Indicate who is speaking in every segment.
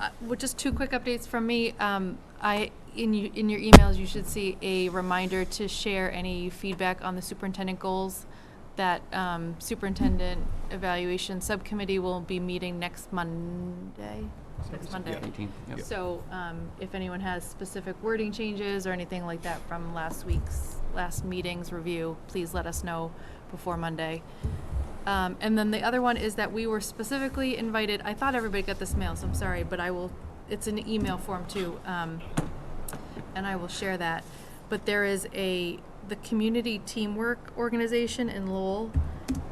Speaker 1: Uh, Well, just two quick updates from me. Um, I, in you, in your emails, you should see a reminder to share any feedback on the superintendent goals. That um, superintendent evaluation subcommittee will be meeting next Monday, next Monday.
Speaker 2: Eighteen, yep.
Speaker 1: So um, if anyone has specific wording changes or anything like that from last week's, last meeting's review, please let us know before Monday. Um, And then the other one is that we were specifically invited, I thought everybody got this mail, so I'm sorry, but I will, it's an email form too. um, And I will share that. But there is a, the Community Teamwork Organization in Lowell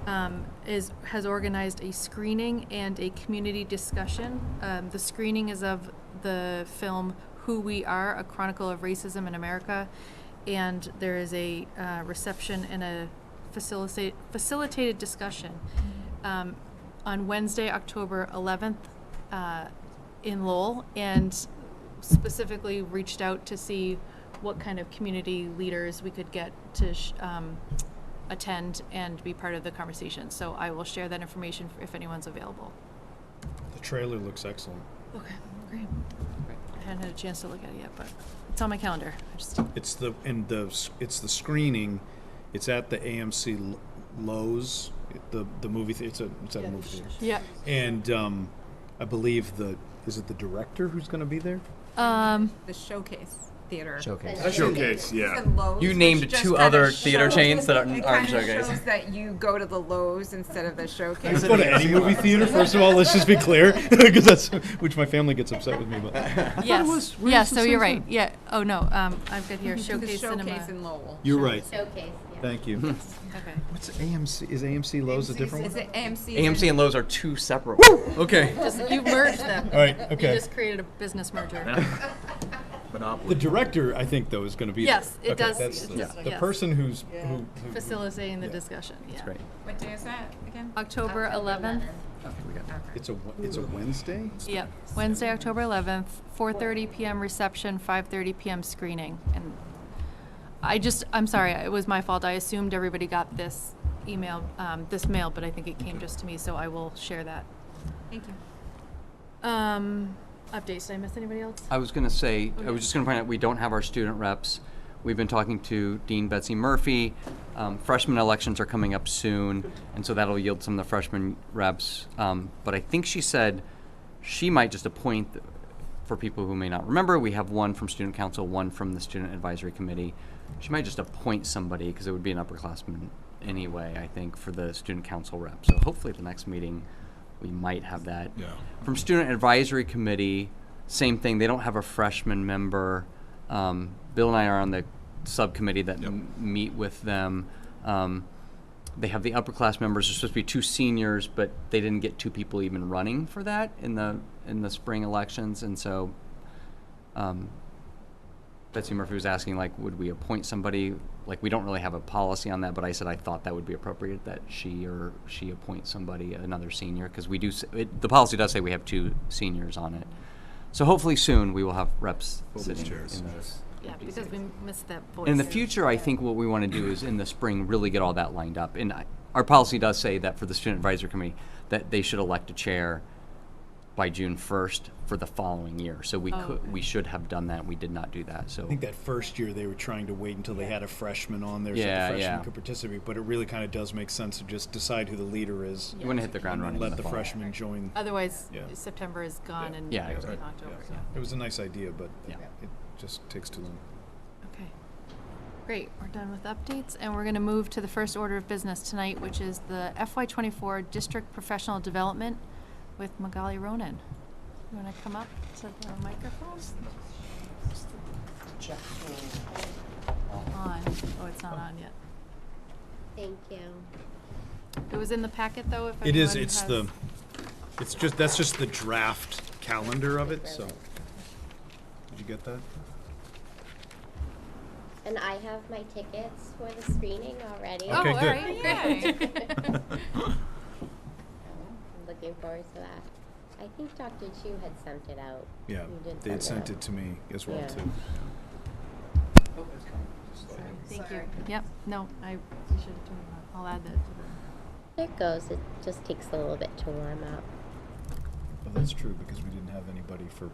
Speaker 1: um, is, has organized a screening and a community discussion. Um, The screening is of the film Who We Are, A Chronicle of Racism in America. And there is a uh, reception and a facilitate, facilitated discussion um, on Wednesday, October 11th uh, in Lowell. And specifically reached out to see what kind of community leaders we could get to sh- um, attend and be part of the conversation. So I will share that information if anyone's available.
Speaker 3: The trailer looks excellent.
Speaker 1: Okay, great. I hadn't had a chance to look at it yet, but it's on my calendar. I just
Speaker 3: It's the and the s- it's the screening. It's at the AMC L- Lowe's, the the movie. Th- it's a it's at a movie theater.
Speaker 1: yeah.
Speaker 3: And um, I believe the is it the director who's going to be there?
Speaker 1: Um,
Speaker 4: the showcase theater.
Speaker 2: Showcase.
Speaker 4: The
Speaker 5: Showcase, yeah.
Speaker 4: The Lowe's,
Speaker 2: You
Speaker 4: which
Speaker 2: named
Speaker 4: just
Speaker 2: two
Speaker 4: kinda
Speaker 2: other theater
Speaker 4: shows-
Speaker 2: chains that aren't-
Speaker 4: it
Speaker 2: aren't
Speaker 4: kinda
Speaker 2: Showcase.
Speaker 4: shows that you go to the Lowe's instead of the showcase.
Speaker 3: Go to any movie theater. First of all, let's just be clear, because that's which my family gets upset with me about.
Speaker 1: yes. yeah. So you're right. Yeah. Oh no. Um, I've got here
Speaker 4: The
Speaker 1: showcase, cinema.
Speaker 4: showcase in Lowell.
Speaker 3: You're right.
Speaker 6: Showcase, yeah.
Speaker 3: Thank you.
Speaker 1: okay.
Speaker 3: What's AMC? Is AMC Lowe's a different
Speaker 4: Is
Speaker 3: one?
Speaker 4: it AMC?
Speaker 2: AMC and Lowe's are two separate. ones. Okay.
Speaker 1: Just, you merged them.
Speaker 3: All right.
Speaker 1: You
Speaker 3: Okay.
Speaker 1: just created a business merger.
Speaker 3: The
Speaker 2: Monopoly.
Speaker 3: director, I think, though, is going to be.
Speaker 1: Yes, it
Speaker 3: there. Okay,
Speaker 1: does-
Speaker 3: That's
Speaker 1: it
Speaker 3: the,
Speaker 1: does-
Speaker 3: the
Speaker 1: yes.
Speaker 3: person who's who, who
Speaker 1: Facilitating the
Speaker 3: Yeah.
Speaker 1: discussion. Yeah.
Speaker 2: That's right.
Speaker 4: What day is that again?
Speaker 1: October 11th.
Speaker 2: Okay, we got it.
Speaker 3: It's a Wed- it's a Wednesday.
Speaker 1: Yep, Wednesday, October 11th, 4:30 PM reception, 5:30 PM screening. And I just, I'm sorry, it was my fault. I assumed everybody got this email, um, this mail, but I think it came just to me, so I will share that.
Speaker 4: Thank you.
Speaker 1: Um, Updates, did I miss anybody else?
Speaker 2: I was gonna say, I
Speaker 1: Okay.
Speaker 2: was just gonna point out, we don't have our student reps. We've been talking to Dean Betsy Murphy. Um, freshman elections are coming up soon, and so that'll yield some of the freshman reps. Um, but I think she said she might just appoint, for people who may not remember, we have one from student council, one from the student advisory committee. She might just appoint somebody, because it would be an upperclassman anyway, I think, for the student council rep. So hopefully at the next meeting, we might have that.
Speaker 5: Yeah.
Speaker 2: From Student Advisory Committee, same thing. They don't have a freshman member. Um, Bill and I are on the subcommittee that
Speaker 5: Yep.
Speaker 2: m- meet with them. Um, they have the upper class members. There's supposed to be two seniors, but they didn't get two people even running for that in the in the spring elections, and so. Um, Betsy Murphy was asking, like, would we appoint somebody? Like, we don't really have a policy on that, but I said I thought that would be appropriate that she or she appoint somebody, another senior, because we do, s- it, the policy does say we have two seniors on it. So hopefully soon we will have reps
Speaker 5: Both
Speaker 2: sitting in
Speaker 5: chairs.
Speaker 2: those.
Speaker 1: Yeah, because we missed that voice.
Speaker 2: In the future, I think what we want to do is in the spring really get all that lined up. And I, our policy does say that for the student advisory committee that they should elect a chair by June first for the following year. So we
Speaker 1: Oh,
Speaker 2: could
Speaker 1: okay.
Speaker 2: we should have done that. We did not do that. So
Speaker 3: I think that first year they were trying to wait until they had a freshman on there so the
Speaker 2: Yeah,
Speaker 3: freshman
Speaker 2: yeah.
Speaker 3: could participate, but it really kind of does make sense to just decide who the leader is
Speaker 2: you want to hit the ground
Speaker 3: and
Speaker 2: running. in
Speaker 3: let the
Speaker 2: fall.
Speaker 3: freshman join.
Speaker 1: Otherwise,
Speaker 3: Yeah.
Speaker 1: September is gone
Speaker 3: Yeah.
Speaker 1: and
Speaker 2: Yeah,
Speaker 1: we're in
Speaker 2: exactly.
Speaker 1: October,
Speaker 3: Yeah.
Speaker 1: yeah.
Speaker 3: It was a nice idea, but
Speaker 2: Yeah.
Speaker 3: it just takes too long.
Speaker 1: Okay. Great, we're done with updates, and we're gonna move to the first order of business tonight, which is the FY twenty-four District Professional Development with Magali Ronan. You wanna come up to the microphone? On, oh, it's not on yet.
Speaker 6: Thank you.
Speaker 1: It was in the packet, though, if
Speaker 3: It is,
Speaker 1: everyone
Speaker 3: it's
Speaker 1: has-
Speaker 3: the, it's just, that's just the draft calendar of it, so. Did you get that?
Speaker 6: And I have my tickets for the screening already.
Speaker 1: Oh,
Speaker 3: Okay,
Speaker 1: all
Speaker 3: good.
Speaker 1: right, great.
Speaker 6: I'm looking forward to that. I think Dr. Chu had sent it out.
Speaker 3: Yeah,
Speaker 6: You did
Speaker 3: they had
Speaker 6: send
Speaker 3: sent it to me as well,
Speaker 6: Yeah.
Speaker 3: too.
Speaker 1: Thank you. Yep, no, I, you should have told me that. I'll add that to the.
Speaker 6: There it goes. It just takes a little bit to warm up.
Speaker 3: Well, that's true because we didn't have anybody for